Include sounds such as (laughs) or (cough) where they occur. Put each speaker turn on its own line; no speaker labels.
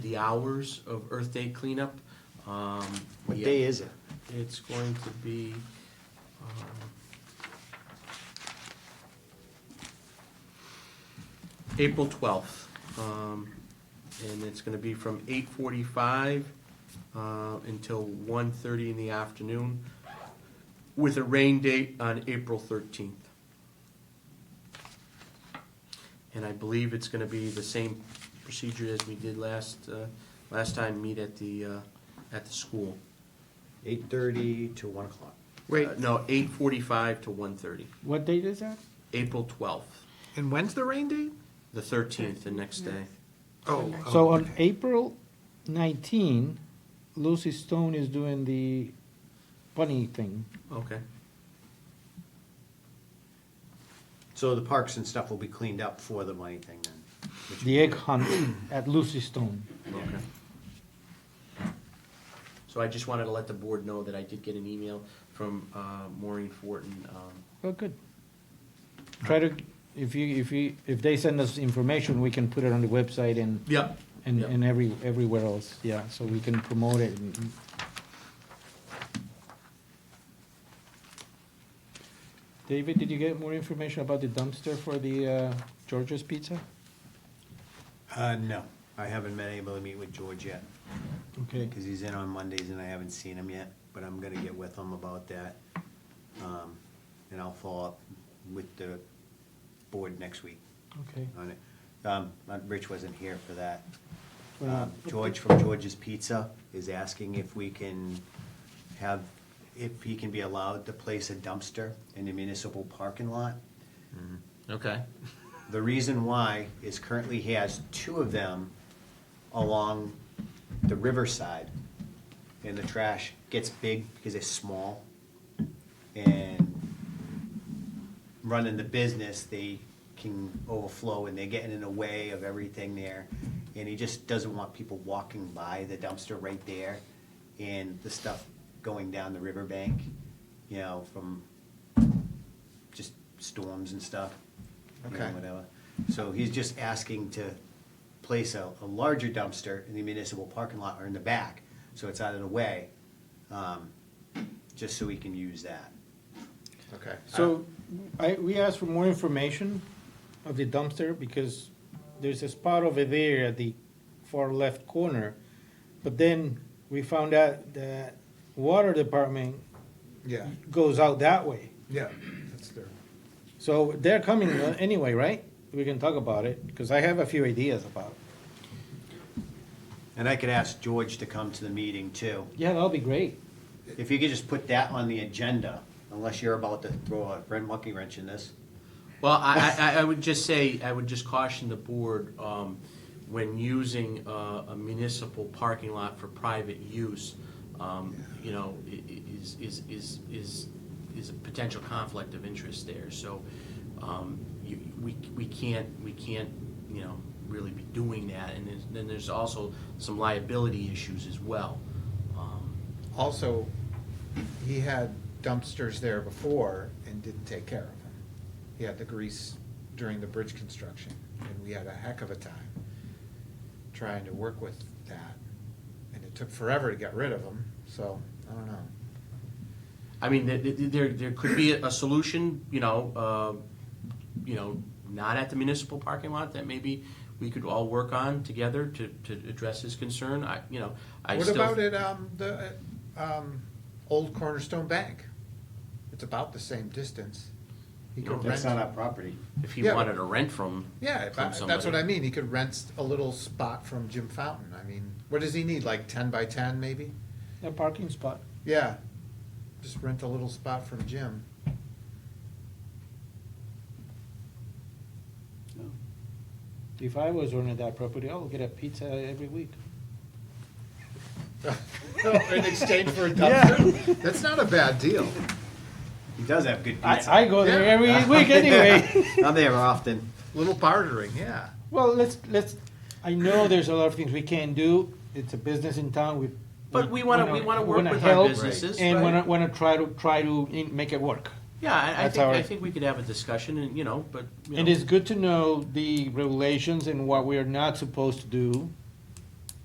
the hours of Earth Day cleanup. Um,
What
yeah,
day is it?
It's going to be, um, April twelfth. Um, and it's gonna be from eight forty-five, uh, until one thirty in the afternoon with a rain date on April thirteenth. And I believe it's gonna be the same procedure as we did last, uh, last time, meet at the, uh, at the school.
Eight thirty to one o'clock.
Wait,
Uh, No, eight forty-five to one thirty,
what date is that?
April twelfth,
And when's the rain date?
the thirteenth, the next day.
Oh,
So
oh,
on April 19, Lucy Stone is doing the bunny thing.
Okay,
So the parks and stuff will be cleaned up for the money thing then. which-
The egg hunt at Lucy Stone.
okay. So I just wanted to let the board know that I did get an email from uh, Maureen Fortin. um,
Oh, good. Try to, if you, if you, if they send us information, we can put it on the website and,
Yep.
and,
Yeah.
and every, everywhere else, yeah, so we can promote it. and- David, did you get more information about the dumpster for the uh, George's Pizza?
Uh, no, I haven't been able to meet with George yet,
Okay.
because he's in on Mondays and I haven't seen him yet, but I'm gonna get with him about that. Um, and I'll follow up with the board next week
Okay.
on it. Um, uh, Rich wasn't here for that.
Why not?
Um, George from George's Pizza is asking if we can have, if he can be allowed to place a dumpster in the municipal parking lot.
Okay.
The reason why is currently he has two of them along the riverside. And the trash gets big because it's small. And running the business, they can overflow and they're getting in the way of everything there. And he just doesn't want people walking by the dumpster right there and the stuff going down the riverbank, you know, from just storms and stuff. you know,
Okay.
Whatever. So he's just asking to place a, a larger dumpster in the municipal parking lot or in the back, so it's out of the way, um, just so he can use that.
okay.
So I, we asked for more information of the dumpster because there's a spot over there at the far left corner. But then we found out that water department
Yeah,
goes out that way.
yeah, that's their,
So they're coming uh, anyway, right? We can talk about it because I have a few ideas about it.
And I could ask George to come to the meeting too.
Yeah, that'll be great.
If you could just put that on the agenda, unless you're about to throw a red monkey wrench in this.
Well, I, I, I would just say, I would just caution the board, um, when using uh, a municipal parking lot for private use, um, you know, i- i- is, is, is, is, is a potential conflict of interest there, so, um, you, we, we can't, we can't, you know, really be doing that, and then, then there's also some liability issues as well. Um,
also, he had dumpsters there before and didn't take care of them. He had the grease during the bridge construction, and we had a heck of a time trying to work with that. And it took forever to get rid of them, so, I don't know.
I mean, there, there, there could be a solution, you know, uh, you know, not at the municipal parking lot that maybe we could all work on together to, to address his concern. I, you know, I
What
still.
about at, um, the, uh, um, old Cornerstone Bank? It's about the same distance. He could
That's
rent.
not our property.
If he
Yeah.
wanted to rent from.
Yeah, if
from
I- that's
somebody.
what I mean. He could rent a little spot from Jim Fountain. I mean, what does he need? Like ten by ten, maybe?
A parking spot.
Yeah, just rent a little spot from Jim.
If I was owning that property, I would get a pizza every week.
in exchange for a
dumpster?
That's not a bad deal.
(laughs) He does have good pizza.
I, I go there every
(laughs)
week anyway.
I'm there often.
Little bartering, yeah.
Well, let's, let's, I know there's a lot of things we can't do, it's a business in town, we.
But we wanna- we wanna work
wanna
with our
help
businesses,
And
right.
wanna, wanna try to, try to in- make it work.
Yeah, I, I
That's
think,
our-
I think we could have a discussion and, you know, but, you
It
know,
is good to know the regulations and what we are not supposed to do,